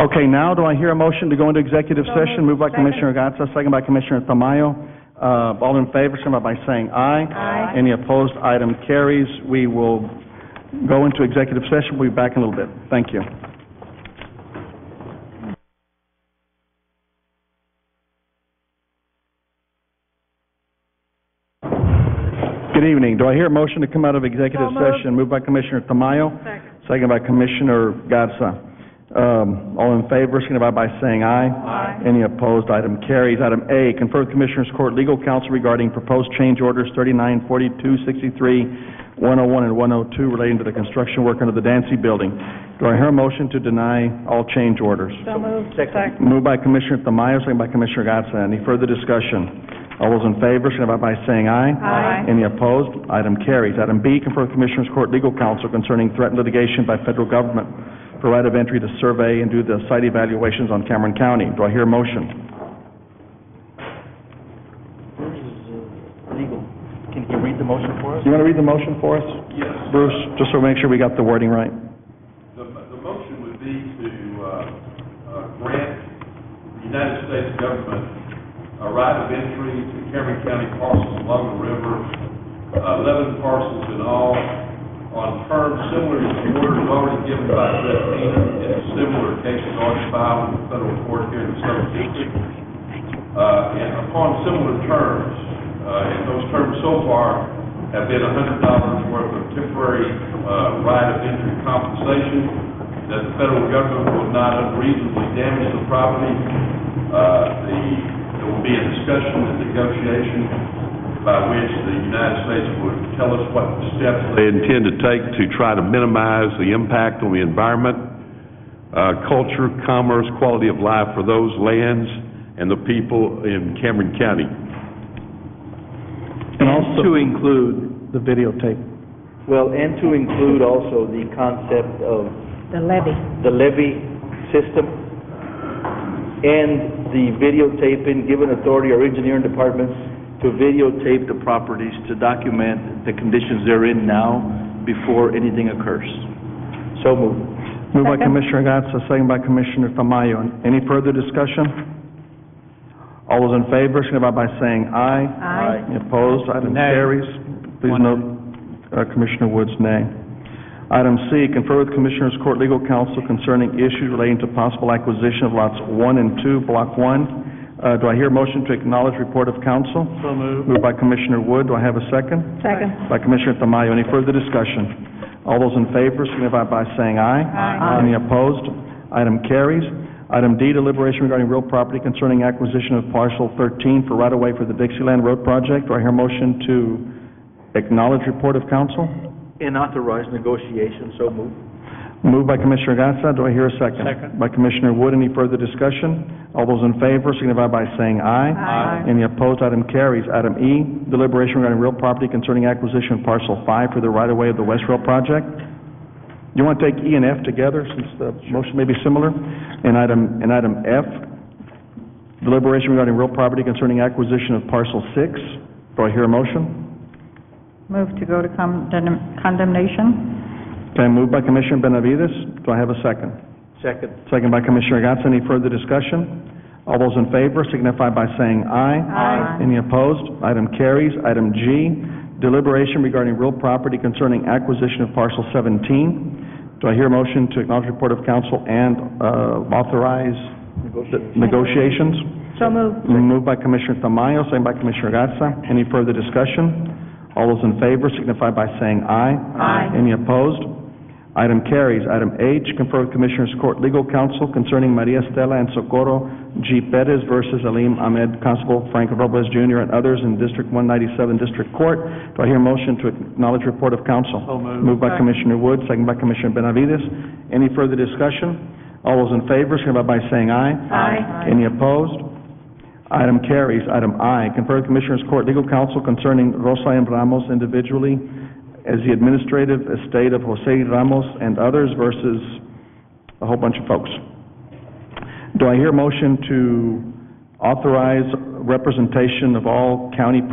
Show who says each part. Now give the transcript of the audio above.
Speaker 1: Okay, now do I hear a motion to go into executive session? Moved by Commissioner Gatsa, second by Commissioner Tamayo. Uh, all in favor, signify by saying aye. Aye. Any opposed, item carries. We will go into executive session. We'll be back in a little bit. Thank you. Good evening. Do I hear a motion to come out of executive session? Moved by Commissioner Tamayo. Second. by Commissioner Gatsa. Um, all in favor, signify by saying aye. Aye. Any opposed, item carries. Item A, confer with Commissioners Court Legal Counsel regarding proposed change orders 39, 42, 63, 101, and one oh two relating to the construction work under the Dancy Building. Do I hear a motion to deny all change orders? Moved by Commissioner Tamayo, second by Commissioner Gatsa. Any further discussion? All those in favor, signify by saying aye. Aye. Any opposed? Item carries. Item B, confer with Commissioners Court Legal Counsel concerning threatened litigation by federal government for right of entry to survey and do the site evaluations on Cameron County. Do I hear a motion?
Speaker 2: legal. Can you read the motion for us?
Speaker 1: You want to read the motion for us? Yes. Bruce, just so we make sure we got the wording right.
Speaker 3: The, the motion would be to, uh, uh, grant the United States government a right of entry to Cameron County parcels along the river, uh, eleven parcels in all, on terms similar to the orders already given by Judge Keenan in similar cases already filed in the federal court here in the Southern District. Uh, and upon similar terms, uh, and those terms so far have been a hundred dollars worth of temporary, uh, right of entry compensation, that the federal government will not unreasonably damage the property. Uh, the, there will be a discussion and negotiation by which the United States would tell us what steps they intend to take to try to minimize the impact on the environment, uh, culture, commerce, quality of life for those lands and the people in Cameron County.
Speaker 1: And also,
Speaker 4: To include,
Speaker 1: the videotape.
Speaker 2: Well, and to include also the concept of
Speaker 5: The levy.
Speaker 2: the levy system and the videotaping, given authority or engineering departments to videotape the properties to document the conditions they're in now before anything occurs. So moved.
Speaker 1: Moved by
Speaker 5: Second.
Speaker 1: Commissioner Gatsa, second by Commissioner Tamayo. Any further discussion? All those in favor, signify by saying aye.
Speaker 5: Aye.
Speaker 1: Any Opposed, item
Speaker 4: Nay.
Speaker 1: carries. Please
Speaker 4: One
Speaker 1: note, uh, Commissioner Woods, nay. Item C, confer with Commissioners Court Legal Counsel concerning issues relating to possible acquisition of lots one and two, block one. Uh, Do I hear a motion to acknowledge report of counsel?
Speaker 4: so moved.
Speaker 1: Moved by Commissioner Wood, do I have a second?
Speaker 5: Second.
Speaker 1: By Commissioner Tamayo, any further discussion? All those in favor signify by saying aye.
Speaker 5: Aye.
Speaker 1: Any opposed? Item carries. Item D, deliberation regarding real property concerning acquisition of parcel 13 for right-of-way for the Dixieland Road project. Do I hear a motion to acknowledge report of council?
Speaker 2: And authorize negotiation, so moved.
Speaker 1: Moved by Commissioner Gatsa, do I hear a second?
Speaker 4: Second.
Speaker 1: By Commissioner Wood, any further discussion? All those in favor signify by saying aye.
Speaker 5: Aye.
Speaker 1: Any opposed, item carries. Item E, deliberation regarding real property concerning acquisition of parcel five for the right-of-way of the West Rail project. You want to take E and F together, since the motion may be similar? And item, and item F, deliberation regarding real property concerning acquisition of parcel six. Do I hear a motion?
Speaker 5: Move to go to condemn- condemnation.
Speaker 1: Okay, moved by Commissioner Benavides. Do I have a second?
Speaker 2: Second.
Speaker 1: Second by Commissioner Gatz. Any further discussion? All those in favor signify by saying aye.
Speaker 5: Aye.
Speaker 1: Any opposed? Item carries. Item G, deliberation regarding real property concerning acquisition of parcel 17. Do I hear a motion to acknowledge report of council and uh, authorize the negotiations?
Speaker 5: So moved.
Speaker 1: Moved by Commissioner Tamayo, second by Commissioner Gatsa. Any further discussion? All those in favor signify by saying aye.
Speaker 5: Aye.
Speaker 1: Any opposed? Item carries. Item H, confer with Commissioners Court Legal Counsel concerning Maria Estela and Socorro G. Perez versus Alim Ahmed, Constable Frank Robles Jr. and others in District 197 District Court. Do I hear a motion to acknowledge report of counsel?
Speaker 4: So moved.
Speaker 1: by Commissioner Wood, second by Commissioner Benavides. Any further discussion? All those in favor, signify by saying aye.
Speaker 5: Aye.
Speaker 1: Any opposed? Item carries. Item I, confer with Commissioners Court Legal Counsel concerning Rosa M. Ramos individually as the administrative estate of Jose Ramos and others versus a whole bunch of folks. Do I hear a motion to authorize representation of all county